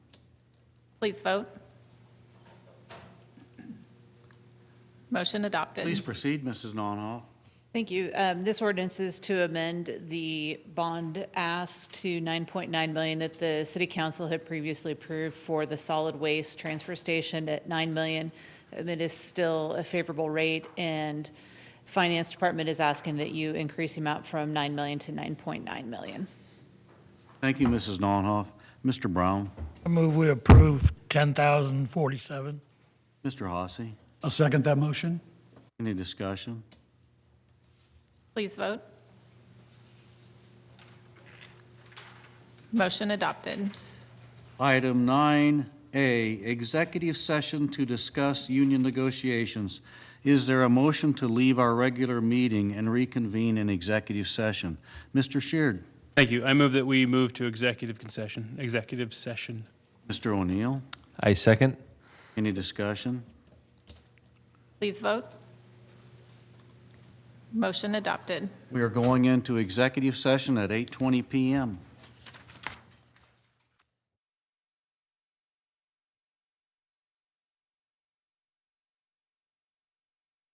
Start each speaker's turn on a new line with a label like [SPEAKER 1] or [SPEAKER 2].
[SPEAKER 1] Please vote. Motion adopted.
[SPEAKER 2] Please proceed, Mrs. Nonhoff.
[SPEAKER 3] Thank you. Um, This ordinance is to amend the bond ask to 9.9 million that the city council had previously approved for the solid waste transfer station at 9 million. Um, It is still a favorable rate, and Finance Department is asking that you increase the amount from 9 million to 9.9 million.
[SPEAKER 2] Thank you, Mrs. Nonhoff. Mr. Brown,
[SPEAKER 4] I move we approve 10,047.
[SPEAKER 2] Mr. Hossie,
[SPEAKER 5] I'll second that motion.
[SPEAKER 2] any discussion?
[SPEAKER 1] Please vote. Motion adopted.
[SPEAKER 2] Item 9A, executive session to discuss union negotiations. Is there a motion to leave our regular meeting and reconvene in executive session? Mr. Sheard,
[SPEAKER 6] Thank you. I move that we move to executive concession, executive session.
[SPEAKER 2] Mr. O'Neill,
[SPEAKER 7] I second.
[SPEAKER 2] any discussion?
[SPEAKER 1] Please vote. Motion adopted.
[SPEAKER 2] We are going into executive session at 8:20 PM.